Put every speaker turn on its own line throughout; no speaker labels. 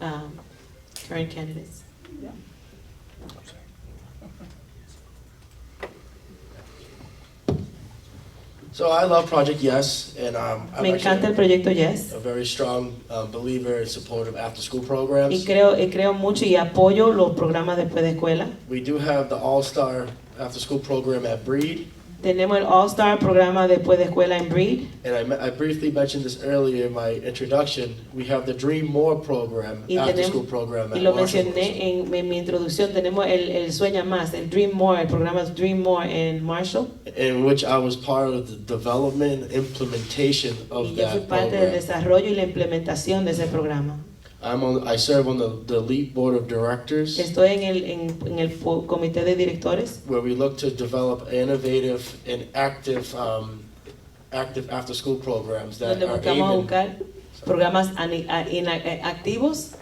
um, current candidates.
So I love Project Yes, and um, I'm
Me encanta el
actually
proyecto Yes
a very strong uh, believer and supporter of after-school programs.
y creo, y creo mucho y apoyo los programas después de escuela.
We do have the All-Star After-School Program at Breed,
Tenemos el All Star programa después de escuela en Breed
and I, me- I briefly mentioned this earlier in my introduction. We have the Dream More program,
Y
after-school
tenemos-
program
y
at
lo
Marshall.
mencioné en, en mi introducción. Tenemos el, el Sueña Más, el Dream More, el programa Dream More en Marshall.
in which I was part of the development and implementation
Y
of
yo fui
that
parte del
program.
desarrollo y la implementación de ese programa.
I'm on, I serve on the, the LEAP Board of Directors,
Estoy en el, en, en el fo- comité de directores
where we look to develop innovative and active, um, active after-school programs that
donde
are
buscamos
aiming.
buscar programas ani- a- ina- eh, activos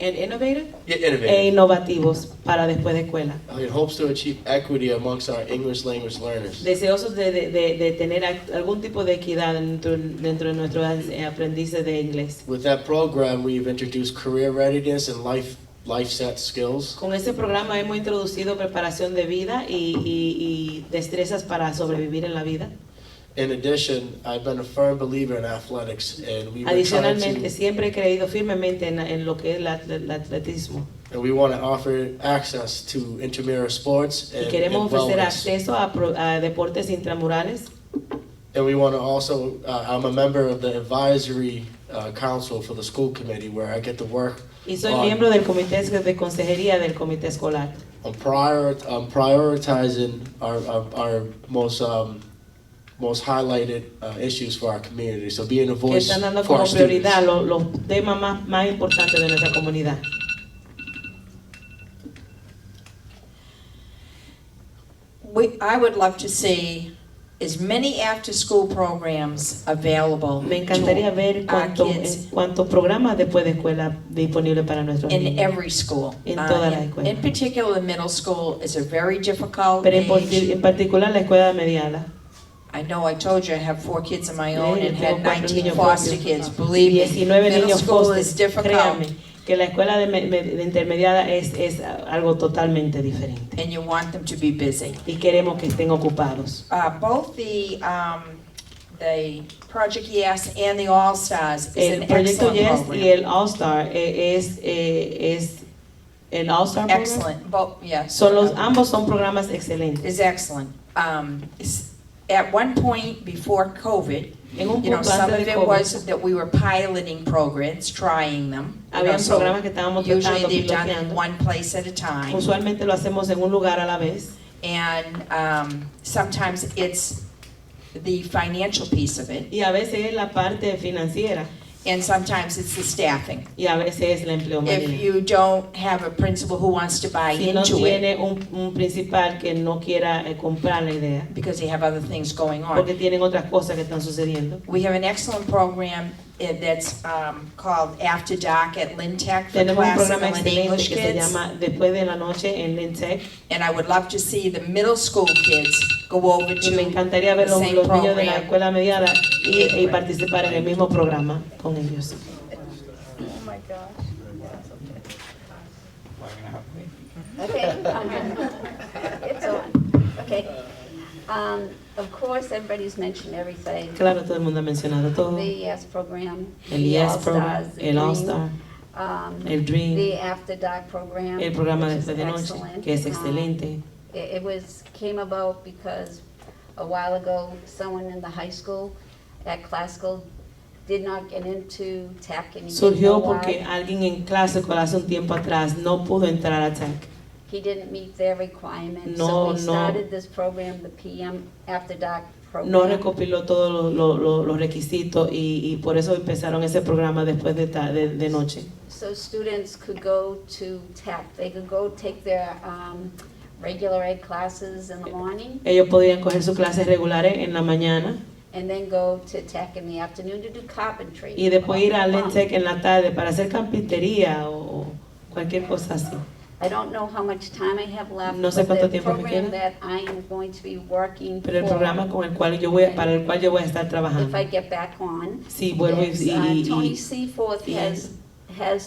and innovative
Yeah,
e
innovative.
innovativos para después de escuela.
It hopes to achieve equity amongst our English language learners.
Deseosos de, de- de- de tener act- algún tipo de equidad dentro, dentro de nuestros eh, aprendices de inglés.
With that program, we've introduced career readiness and life, life set skills.
Con este programa hemos introducido preparación de vida y, y- y destrezas para sobrevivir en la vida.
In addition, I've been a firm believer in athletics, and we were trying
Adicionalmente,
to
siempre he creído firmemente en, en lo que es el at- el atletismo.
And we want to offer access to intramural sports and,
Y queremos
and
ofrecer
wellness.
acceso a, pro- a deportes intramurales.
And we want to also, uh, I'm a member of the advisory uh, council for the school committee where I get to work
Y soy
on,
miembro del comité de consejería del comité escolar.
on prior, um, prioritizing our, our, our most, um, most highlighted uh, issues for our community. So being a
Que
voice
están dando
for
como
our students.
prioridad lo- los, temas más, más importantes de nuestra comunidad.
We, I would love to see as many after-school programs available
Me encantaría
to
ver
our
cuánto-
kids.
en cuántos programas después de escuela disponibles para nuestros
in
niños.
every school.
En
Uh,
todas las
in-
escuelas.
In particular, the middle school is a very difficult
Pero en, posi-
age.
en particular la escuela mediana.
I know, I told you, I have four kids of my own
Eh, yo
and
tengo
had
cuatro
19
niños
foster
propios.
kids, believe me.
19
Middle
niños
school is
postes. Créame
difficult,
que la escuela de, me- me- de intermediada es, es algo totalmente diferente.
and you want them to be busy.
Y queremos que estén ocupados.
Uh, both the, um, the Project Yes and the All Stars is
El
an
proyecto
excellent
Yes
program.
y el All Star eh, es, eh, es el All Star program.
Excellent, both, yes.
Son los, ambos son programas excelentes.
is excellent. Um, s- At one point before COVID,
En un
you know,
punto
some
antes
of
de
it
COVID,
was that we were piloting programs, trying them. you know,
había
so
programas que estábamos
Usually
tratando,
they're done in
piloteando.
one place at a time.
Usualmente lo hacemos en un lugar a la vez.
And um, sometimes it's the financial piece of it,
Y a veces es la parte financiera
and sometimes it's the staffing.
y a veces es la empleomanía.
If you don't have a principal who wants to buy
si no
into it,
tiene un, un principal que no quiera eh, comprar la idea,
because they have other things going on.
porque tienen otras cosas que están sucediendo.
We have an excellent program eh, that's um, called After Dark at Lynn Tech for
Tenemos un
classical
programa
and
excelente
English
que se
kids.
llama Después de la Noche en Lentec.
And I would love to see the middle school kids go over
Y me
to,
encantaría ver
the
los,
same
los niños de la
program.
escuela mediada y, y participar en el mismo programa con ellos.
Okay. It's on, okay. Um, Of course, everybody's mentioned everything.
Claro, todo el mundo ha mencionado todo.
The ES program.
El
the
ES
All
Program,
Stars, the
el All
Dream,
Star,
um,
el Dream,
The After Dark program.
el programa
which is
Después de Noche,
excellent.
que es
Um,
excelente.
It it was, came about because a while ago, someone in the high school at classical did not get into tech and he didn't know
Surgió porque
why.
alguien en clase hace un tiempo atrás no pudo entrar a TAC.
He didn't meet their requirements.
No,
So
no.
we started this program, the PM After Dark program.
No recopiló todos los- los- los- los requisitos y, y por eso empezaron ese programa después de, ta- de, de noche.
So students could go to tech, they could go take their um, regular ed classes in the morning
Ellos podían coger sus clases regulares en la mañana
and then go to tech in the afternoon to do carpentry.
y después ir a
Um,
Lentec en la tarde para hacer carpintería o, o cualquier cosa así.
I don't know how much time I have left.
No sé
but
cuánto tiempo me
The program
queda.
that I am going to be working for.
Pero el programa con el cual yo voy, a- para el cual yo voy a estar
If
trabajando.
I get back on.
Sí, vuelvo y-
is,
y-
uh,
y-
Tony
y
Seaforth
y-
has, has